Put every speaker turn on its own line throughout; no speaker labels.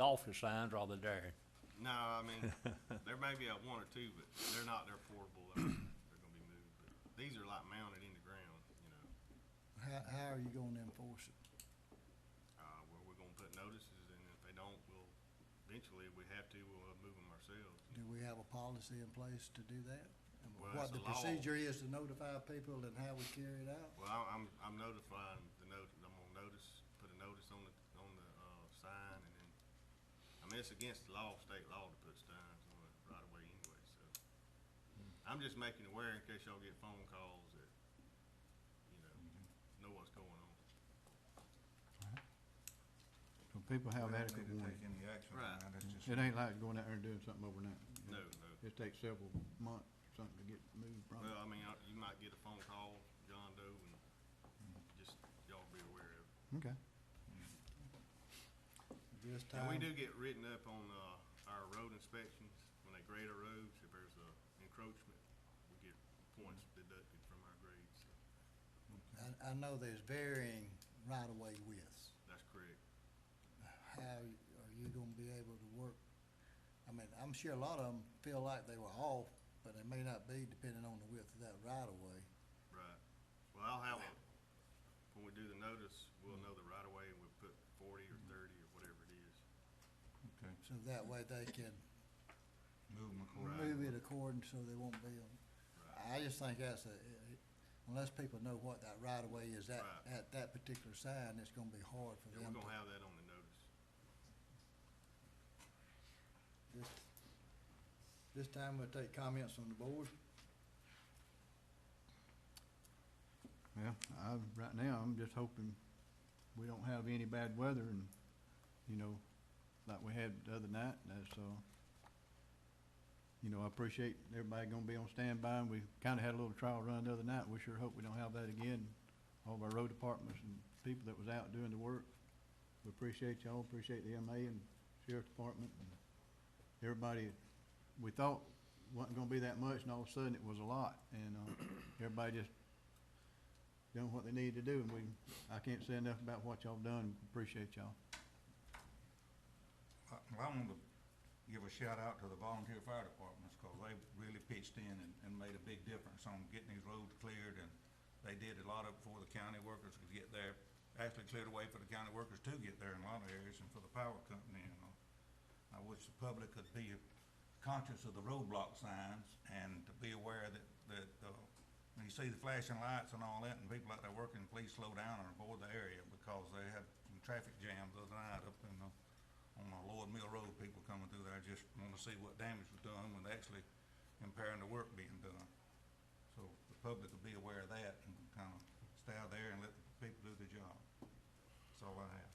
Dolphin signs rather than dairy.
No, I mean, there may be a one or two, but they're not, they're portable, they're, they're gonna be moved, but these are like mounted in the ground, you know.
How, how are you gonna enforce it?
Uh, where we're gonna put notices, and if they don't, we'll, eventually, if we have to, we'll uh, move them ourselves.
Do we have a policy in place to do that? And
Well,
What
that's
the
the law.
procedure is to notify people and how we carry it out?
Well, I- I'm, I'm notifying the notice, I'm gonna notice, put a notice on the, on the, uh, sign, and then, I mean, it's against the law, state law, to put signs on it right away anyway, so. I'm just making aware in case y'all get phone calls that, you know, know what's going on.
So people have adequate
We don't need
warning.
to take any action
Right.
on that, that's just.
It ain't like going out there and doing something overnight.
No, no.
It takes several months, or something to get moved from.
Well, I mean, I- you might get a phone call, John Doe, and just y'all be aware of. it.
Okay.
This
And we
time,
do get written up on, uh, our road inspections, when they grade our roads, if there's a encroachment, we get points deducted from our grades, so
I, I know there's varying right-of-way widths.
that's correct.
How are you gonna be able to work? I mean, I'm sure a lot of them feel like they were off, but they may not be depending on the width of that right-of-way.
Right. Well, I'll have a, when we do the notice, we'll know the right of way and we'll put forty or thirty or whatever it is.
Okay,
So that way they can
move them according.
move it according so they won't be on.
Right.
I just think that's a, unless people know what that right of way is at,
Right.
at that particular sign, it's gonna be hard for
And
them.
we're gonna
to-
have that on the notice.
This this time we'll take comments from the board.
Well, I, right now, I'm just hoping we don't have any bad weather and, you know, like we had the other night, that's, uh, you know, I appreciate everybody gonna be on standby, and we kinda had a little trial run the other night, we sure hope we don't have that again. All of our road departments and people that was out doing the work, we appreciate y'all, appreciate the MA and Sheriff's Department and everybody. We thought wasn't gonna be that much, and all of a sudden it was a lot, and, uh, everybody just done what they needed to do, and we, I can't say enough about what y'all done, appreciate y'all.
I Uh, I want to give a shout out to the volunteer fire departments, because they really pitched in and, and made a big difference on getting these roads cleared, and they did a lot of it before the county workers could get there. Actually cleared a way for the county workers to get there in a lot of areas, and for the power company, and all. I wish the public could be conscious of the roadblock signs and to be aware that, that, uh, when you see the flashing lights and all that, and people out there working, please slow down and avoid the area, because they had some traffic jams the other night up in the on the Lord Mill Road, people coming through there just want to see what damage was done when actually impairing the work being done. So the public will be aware of that and kind of stay out there and let the people do their job. That's all I have.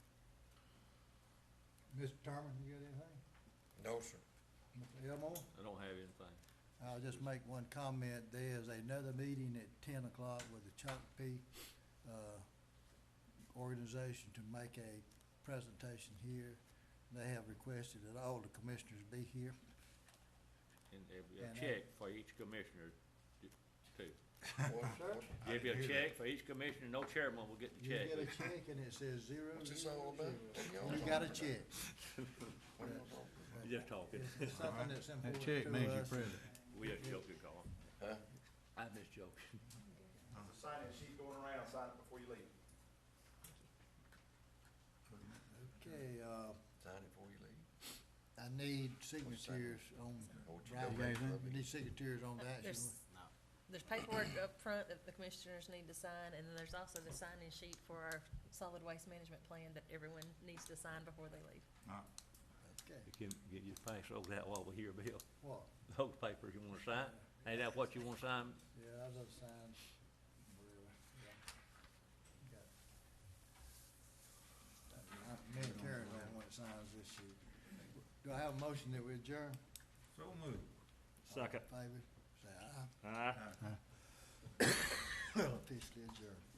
Mr. Terman, you got anything?
No, sir.
Mr. Elmore?
I don't have anything.
I'll just make one comment. There's another meeting at ten o'clock with the Chocopee, uh, organization to make a presentation here. They have requested that all the commissioners be here.
And there will be a
And I-
check for each commissioner, t- too.
What,
Sir?
what,
There'll be a
hear
check for each commissioner, no chairman will get the
You get a
check.
check and it says zero.
what's this all about?
You got a check.
Just talking,
It's something that's
That
important to us.
check means you're present.
we just joking, Carl.
Huh?
I'm just joking.
sign it, she's going around, sign it before you leave.
Okay, uh,
Sign it before you leave.
I need signatures on,
What you
right,
don't make
you
public.
need signatures on that.
There's, there's paperwork up front that the commissioners need to sign, and then there's also the sign-in sheet for our solid waste management plan that everyone needs to sign before they leave.
All right.
Okay,
You can get your pass over that while we're here, Bill.
what?
Those papers you wanna sign, ain't that what you wanna sign?
Yeah, I was signed, whatever, yeah. Got it. I- Me and Karen don't want signs this sheet. Do I have a motion that we adjourn?
So moved.
Second.
Favor, say aye.
Aye.
Officially adjourned.